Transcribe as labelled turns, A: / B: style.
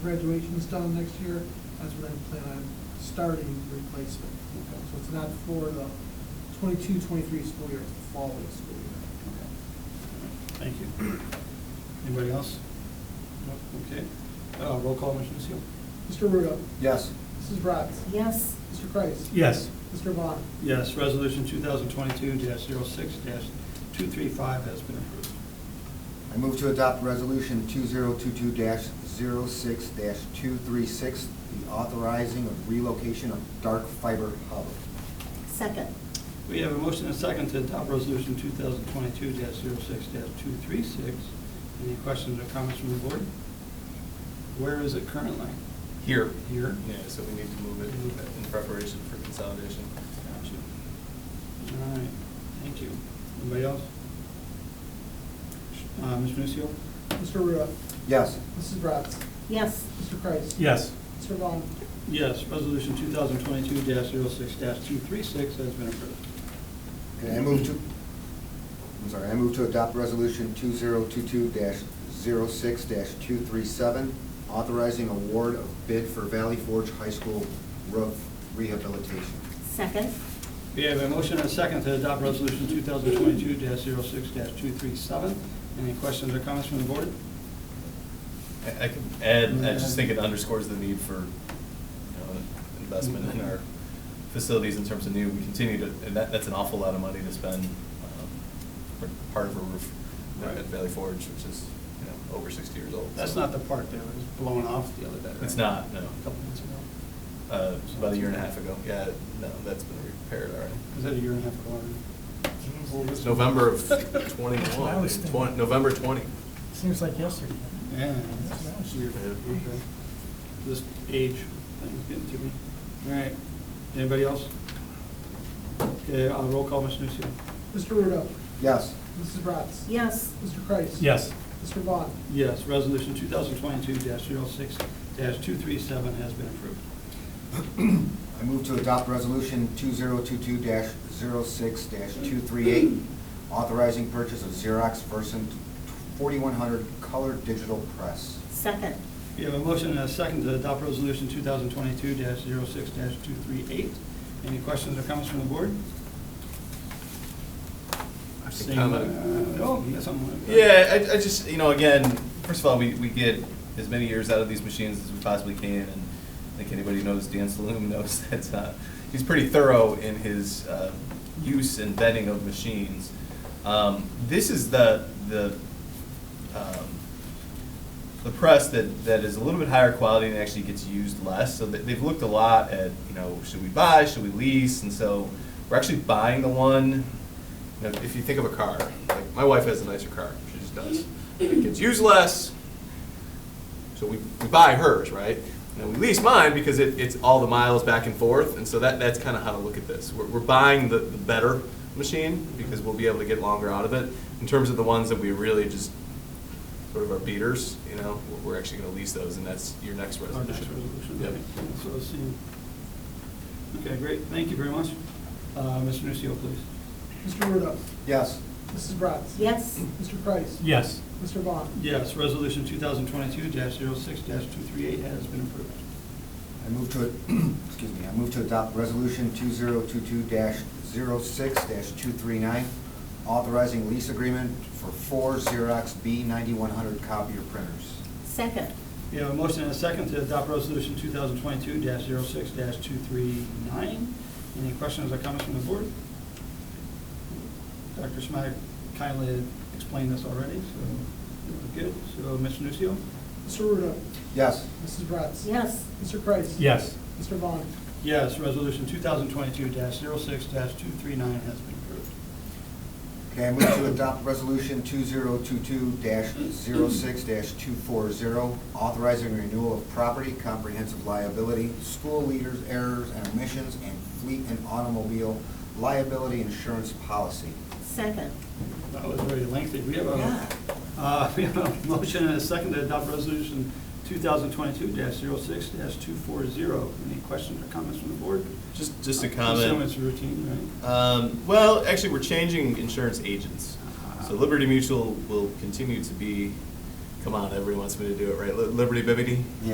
A: graduation's done next year, that's when I plan on starting replacement. So it's not for the 22-23 school year, it's the following school year.
B: Thank you. Anybody else? No? Okay. Uh, Roll call, Mr. Nusio.
A: Mr. Ruda.
C: Yes.
A: Mrs. Bratz.
D: Yes,
A: Mr. Kreis.
B: Yes.
A: Mr. Vaughn.
B: Yes, Resolution 2022-06-235 has been approved.
C: I move to adopt Resolution 2022-06-236, the authorizing of relocation of dark fiber hub.
D: second.
B: We have a motion and a second to adopt Resolution 2022-06-236. Any questions or comments from the board? Where is it currently?
E: Here.
B: Here.
E: Yeah, so we need to move it in preparation for consolidation.
B: Gotcha. All right, thank you. Anybody else? Uh, Mr. Nusio?
A: Mr. Ruda.
C: Yes.
A: Mrs. Bratz.
D: Yes,
A: Mr. Kreis.
F: Yes,
A: Mr. Vaughn.
B: Yes, Resolution 2022-06-236 has been approved.
C: And I move to, I'm sorry, I move to adopt Resolution 2022-06-237, authorizing award of bid for Valley Forge High School roof rehabilitation.
D: second.
B: We have a motion and a second to adopt Resolution 2022-06-237. Any questions or comments from the board?
E: I, I could add, I just think it underscores the need for, you know, investment in our facilities in terms of new, we continue to, and that, that's an awful lot of money to spend, um, for part of a roof
B: Right.
E: at Valley Forge, which is, you know, over sixty years old.
B: That's
E: so-
B: not the part that was blown off the other day, right?
E: It's not, no.
B: A Couple months ago.
E: Uh, about a year and a half ago, yeah, no, that's been repaired already.
B: Was that a year and a half ago? already?
E: November of twenty-one, twen- November twenty.
G: Seems like yesterday.
B: Yeah. that's weird.
E: Yeah.
B: Okay. This age thing's getting to me. All right. Anybody else? Okay, uh, roll call, Mr. Nusio.
A: Mr. Ruda.
C: Yes.
A: Mrs. Bratz.
D: Yes,
A: Mr. Kreis.
F: yes,
A: Mr. Vaughn.
B: Yes, Resolution 2022-06-237 has been approved.
C: I move to adopt Resolution 2022-06-238, authorizing purchase of Xerox Versant 4100 Color Digital Press.
D: second.
B: We have a motion and a second to adopt Resolution 2022-06-238. Any questions or comments from the board?
E: I've
B: Seeing- uh, Oh, you got something?
E: Yeah, I, I just, you know, again, first of all, we, we get as many years out of these machines as we possibly can, and I think anybody who knows Dan Saloom knows that, uh, he's pretty thorough in his, uh, use and vetting of machines. Um, this is the, the, um, the press that, that is a little bit higher quality and actually gets used less. So they- they've looked a lot at, you know, should we buy, should we lease? And so we're actually buying the one, you know, if you think of a car, like my wife has a nicer car, she just does. It gets used less, so we, we buy hers, right? And then we lease mine because it, it's all the miles back and forth, and so that, that's kind of how to look at this. We're, we're buying the, the better machine because we'll be able to get longer out of it. In terms of the ones that we really just sort of our beaters, you know, we're- we're actually going to lease those, and that's your next
B: Our
E: resolution.
B: next resolution.
E: Yep.
B: So it's seen. Okay, great, thank you very much. Uh, Mr. Nucio, please.
A: Mr. Ruda.
C: Yes.
A: Mrs. Bratz.
D: Yes,
A: Mr. Kreis.
F: yes,
A: Mr. Vaughn.
B: Yes, Resolution 2022-06-238 has been approved.
C: I move to, excuse me, I move to adopt Resolution 2022-06-239, authorizing lease agreement for four Xerox B9100 copier printers.
D: second.
B: We have a motion and a second to adopt Resolution 2022-06-239. Any questions or comments from the board? Dr. Schmack kindly explained this already, so, good. So, Mr. Nucio?
A: Mr. Ruda.
C: Yes.
A: Mrs. Bratz.
D: Yes,
A: Mr. Kreis.
F: yes,
A: Mr. Vaughn.
B: Yes, Resolution 2022-06-239 has been approved.
C: Okay, I move to adopt Resolution 2022-06-240, authorizing renewal of property, comprehensive liability, school leaders' errors and omissions, and fleet and automobile liability insurance policy.
D: second.
B: That was very lengthy. We have a, uh, we have a motion and a second to adopt Resolution 2022-06-240. Any questions or comments from the board?
E: Just, just a
B: Assume
E: comment.
B: it's routine, right?
E: Um, well, actually, we're changing insurance agents.
B: Ah.
E: So Liberty Mutual will continue to be, come on, everyone wants me to do it, right? Li- Liberty Bibbity?